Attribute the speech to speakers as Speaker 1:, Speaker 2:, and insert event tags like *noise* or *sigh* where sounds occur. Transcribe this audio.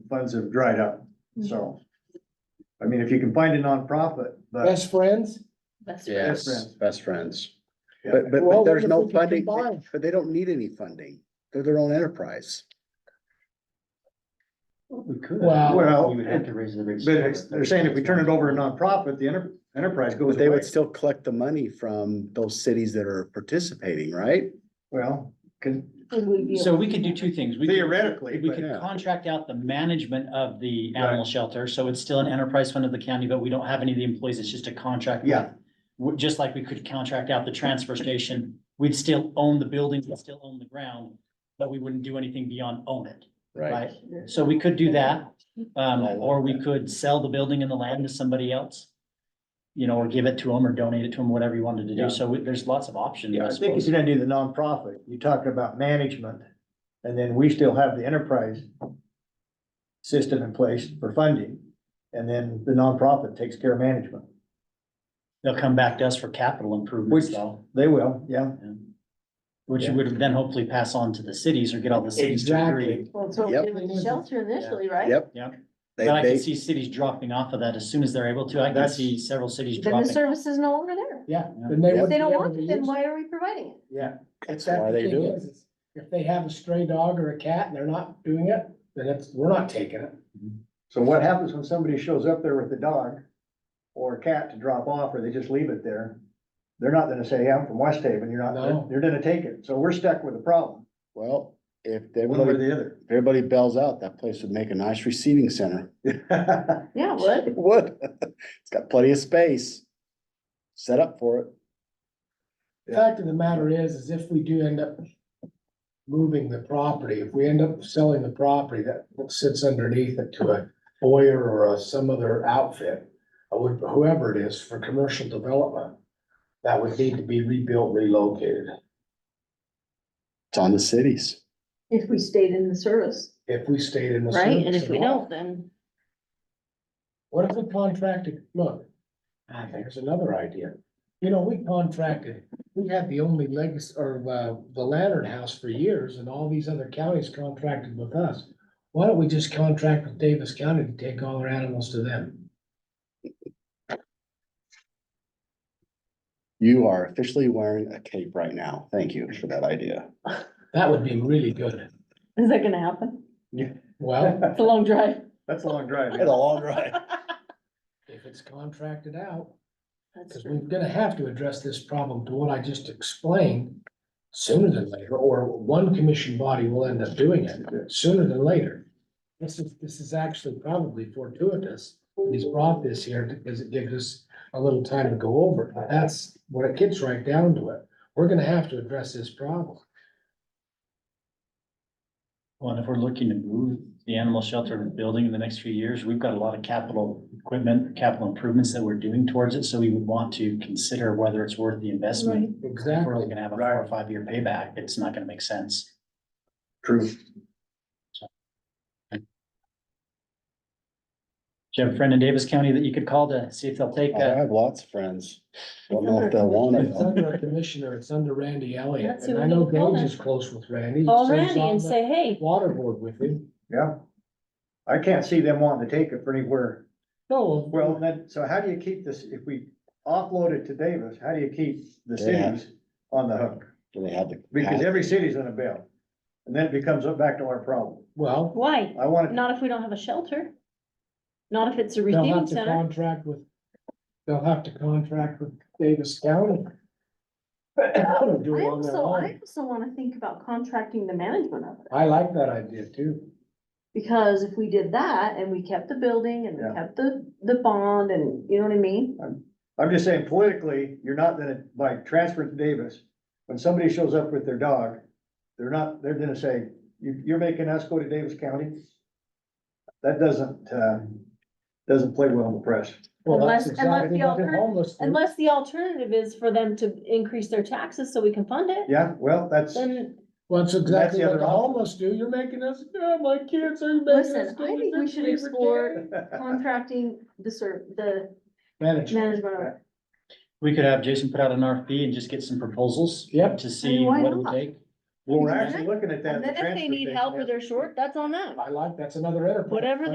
Speaker 1: funds have dried up,
Speaker 2: Mm-hmm.
Speaker 1: so. I mean, if you can find a nonprofit, but
Speaker 3: Best friends?
Speaker 2: That's right.
Speaker 1: friends.
Speaker 4: Yes, best friends.
Speaker 1: Yeah.
Speaker 4: But, but,
Speaker 3: Well,
Speaker 4: but there's
Speaker 3: what
Speaker 4: no
Speaker 3: if we
Speaker 4: funding,
Speaker 3: combine?
Speaker 4: but they don't need any funding. They're their own enterprise.
Speaker 5: We could.
Speaker 3: Wow.
Speaker 1: Well,
Speaker 5: We would have to raise the. rates.
Speaker 1: but it's- they're saying if we turn it over to nonprofit, the enter- enterprise goes
Speaker 4: But they
Speaker 1: away.
Speaker 4: would still collect the money from those cities that are participating, right?
Speaker 1: Well, can
Speaker 2: Would we be
Speaker 5: So we could do two things. We could-
Speaker 1: theoretically,
Speaker 5: We
Speaker 1: but
Speaker 4: yeah.
Speaker 5: could contract out the management of the animal shelter, so it's still an enterprise fund of the county, but we don't have any of the employees, it's just a contract. with-
Speaker 1: Yeah.
Speaker 5: w- Just like we could contract out the transfer station, we'd still own the building, we'd still own the ground, but we wouldn't do anything beyond own it, right? So we could do that, um, or we could sell the building and the land to somebody else. You know, or give it to them or donate it to them, whatever you wanted to
Speaker 1: Yeah.
Speaker 5: do, so we- there's lots of options,
Speaker 1: Yeah,
Speaker 5: I
Speaker 1: I think if
Speaker 5: suppose.
Speaker 1: you're gonna do the nonprofit, you're talking about management, and then we still have the enterprise system in place for funding, and then the nonprofit takes care of management.
Speaker 5: They'll come back to us for capital improvements
Speaker 1: Which-
Speaker 5: though.
Speaker 1: They will, yeah.
Speaker 5: Which you would then hopefully pass on to the cities or get all the cities to agree.
Speaker 3: Exactly.
Speaker 2: Well, it's what we
Speaker 4: Yep.
Speaker 2: did with the shelter initially, right?
Speaker 4: Yep.
Speaker 5: Yep.
Speaker 4: They,
Speaker 5: But I can
Speaker 4: they,
Speaker 5: see cities dropping off of that as soon as they're able to. I can
Speaker 1: That's-
Speaker 5: see several cities
Speaker 2: Then the
Speaker 5: dropping.
Speaker 2: service is no longer there.
Speaker 3: Yeah.
Speaker 5: Yeah.
Speaker 3: then they
Speaker 2: If they don't
Speaker 3: wouldn't be
Speaker 2: want
Speaker 3: able
Speaker 2: it,
Speaker 3: to
Speaker 2: then
Speaker 3: use
Speaker 2: why are we providing it?
Speaker 1: Yeah.
Speaker 3: That's
Speaker 4: Why
Speaker 3: the
Speaker 4: they
Speaker 3: thing
Speaker 4: do it.
Speaker 3: is, is If they have a stray dog or a cat and they're not doing it, then it's, we're not taking it.
Speaker 1: So what happens when somebody shows up there with a dog or a cat to drop off, or they just leave it there? They're not gonna say, yeah, I'm from West Haven, you're not,
Speaker 3: No.
Speaker 1: they're gonna take it, so we're stuck with a problem,
Speaker 4: well, if
Speaker 1: one way or
Speaker 4: everybody,
Speaker 1: the other.
Speaker 4: if everybody bells out, that place would make a nice receiving center. *laughs*
Speaker 2: Yeah, what?
Speaker 4: It would. It's got plenty of space. Set up for it.
Speaker 3: The
Speaker 4: Yeah.
Speaker 3: Fact of the matter is, is if we do end up moving the property, if we end up selling the property that sits underneath it to a Boyer or a- some other outfit, or whoever it is for commercial development, that would need to be rebuilt, relocated.
Speaker 4: It's on the cities.
Speaker 2: If we stayed in the service,
Speaker 3: If we stayed in the.
Speaker 2: right? And
Speaker 3: service
Speaker 2: if we
Speaker 3: at all.
Speaker 2: don't, then
Speaker 3: What if we contracted, look,
Speaker 5: I think
Speaker 3: here's another idea. You know, we contracted, we had the only legacy, or, uh, the Lantern House for years, and all these other counties contracted with us. Why don't we just contract with Davis County to take all our animals to them?
Speaker 4: You are officially wearing a cape right now. Thank you for that idea.
Speaker 3: That would be really good.
Speaker 2: is that gonna happen?
Speaker 3: Well,
Speaker 2: It's a long drive.
Speaker 1: *laughs* That's a long drive.
Speaker 4: It's a long ride.
Speaker 3: if it's contracted out,
Speaker 2: That's
Speaker 3: because
Speaker 2: true.
Speaker 3: we're gonna have to address this problem to what I just explained sooner than later, or one commission body will end up doing it sooner than later. This is, this is actually probably fortuitous. He's brought this here because it gives us a little time to go over it. But That's when it gets right down to it. We're gonna have to address this problem.
Speaker 5: Well, and if we're looking to move the animal shelter building in the next few years, we've got a lot of capital equipment, capital improvements that we're doing towards it, so we would want to consider whether it's worth the investment. If we're only
Speaker 3: Exactly.
Speaker 5: gonna have a four or five year payback, it's not gonna make sense.
Speaker 1: True.
Speaker 5: Do you have a friend in Davis County that you could call to see if they'll take
Speaker 4: I
Speaker 5: a
Speaker 4: have lots of friends. Don't know if they'll want it.
Speaker 3: It's
Speaker 4: though.
Speaker 3: under a commissioner, it's under Randy Elliott,
Speaker 2: That's who
Speaker 3: and
Speaker 2: we
Speaker 3: I know
Speaker 2: need to call
Speaker 3: Gage
Speaker 2: then.
Speaker 3: is close with Randy.
Speaker 2: Call
Speaker 3: So he's
Speaker 2: Randy
Speaker 3: on
Speaker 2: and
Speaker 3: the
Speaker 2: say, hey,
Speaker 3: Water board with him.
Speaker 1: Yeah. I can't see them wanting to take it for anywhere.
Speaker 3: No,
Speaker 1: Well, then, so how do you keep this, if we offload it to Davis, how do you keep the
Speaker 4: Yeah.
Speaker 1: cities on the hook?
Speaker 4: Do they have the?
Speaker 1: Because
Speaker 4: cap-
Speaker 1: every city's on a bill. And then it becomes back to our problem.
Speaker 3: well,
Speaker 2: why?
Speaker 1: I want it,
Speaker 2: Not if we don't have a shelter. Not if it's a
Speaker 3: they'll
Speaker 2: receiving
Speaker 3: have to
Speaker 2: center.
Speaker 3: contract with, they'll have to contract with Davis County. Do it
Speaker 2: I
Speaker 3: on their
Speaker 2: also, I
Speaker 3: own.
Speaker 2: also wanna think about contracting the management of it.
Speaker 3: I like that idea too.
Speaker 2: Because if we did that and we kept the building and
Speaker 1: Yeah.
Speaker 2: we kept the, the bond and, you know what I mean?
Speaker 1: I'm just saying politically, you're not gonna, by transfer to Davis, when somebody shows up with their dog, they're not, they're gonna say, you, you're making us go to Davis County? That doesn't, uh, doesn't play well in the press.
Speaker 3: Well,
Speaker 2: Unless-
Speaker 3: that's
Speaker 2: unless
Speaker 3: exactly
Speaker 2: the
Speaker 3: what the
Speaker 2: altern-
Speaker 3: homeless
Speaker 1: Mm-hmm.
Speaker 3: do.
Speaker 2: Unless the alternative is for them to increase their taxes so we can fund it,
Speaker 1: Yeah, well, that's.
Speaker 2: then
Speaker 3: Well, that's exactly
Speaker 1: the
Speaker 3: what
Speaker 1: other
Speaker 3: the
Speaker 1: option.
Speaker 3: homeless do. You're making us, yeah, my kids are making us.
Speaker 2: listen, I
Speaker 3: do it.
Speaker 2: think
Speaker 3: They're
Speaker 2: we should
Speaker 3: favorite
Speaker 2: explore
Speaker 3: kids.
Speaker 1: *laughs*
Speaker 2: contracting the ser, the
Speaker 3: Manage.
Speaker 2: management of it.
Speaker 5: We could have Jason put out an RFP and just get some proposals.
Speaker 3: Yep.
Speaker 5: To see
Speaker 2: why
Speaker 5: what it would
Speaker 2: not?
Speaker 5: take.
Speaker 1: Well, we're actually looking at that.
Speaker 2: And
Speaker 1: in the
Speaker 2: then if they
Speaker 1: transfer
Speaker 2: need
Speaker 1: station
Speaker 2: help or
Speaker 1: as-
Speaker 2: they're short, that's on them.
Speaker 3: I like, that's another enterprise.
Speaker 2: Whatever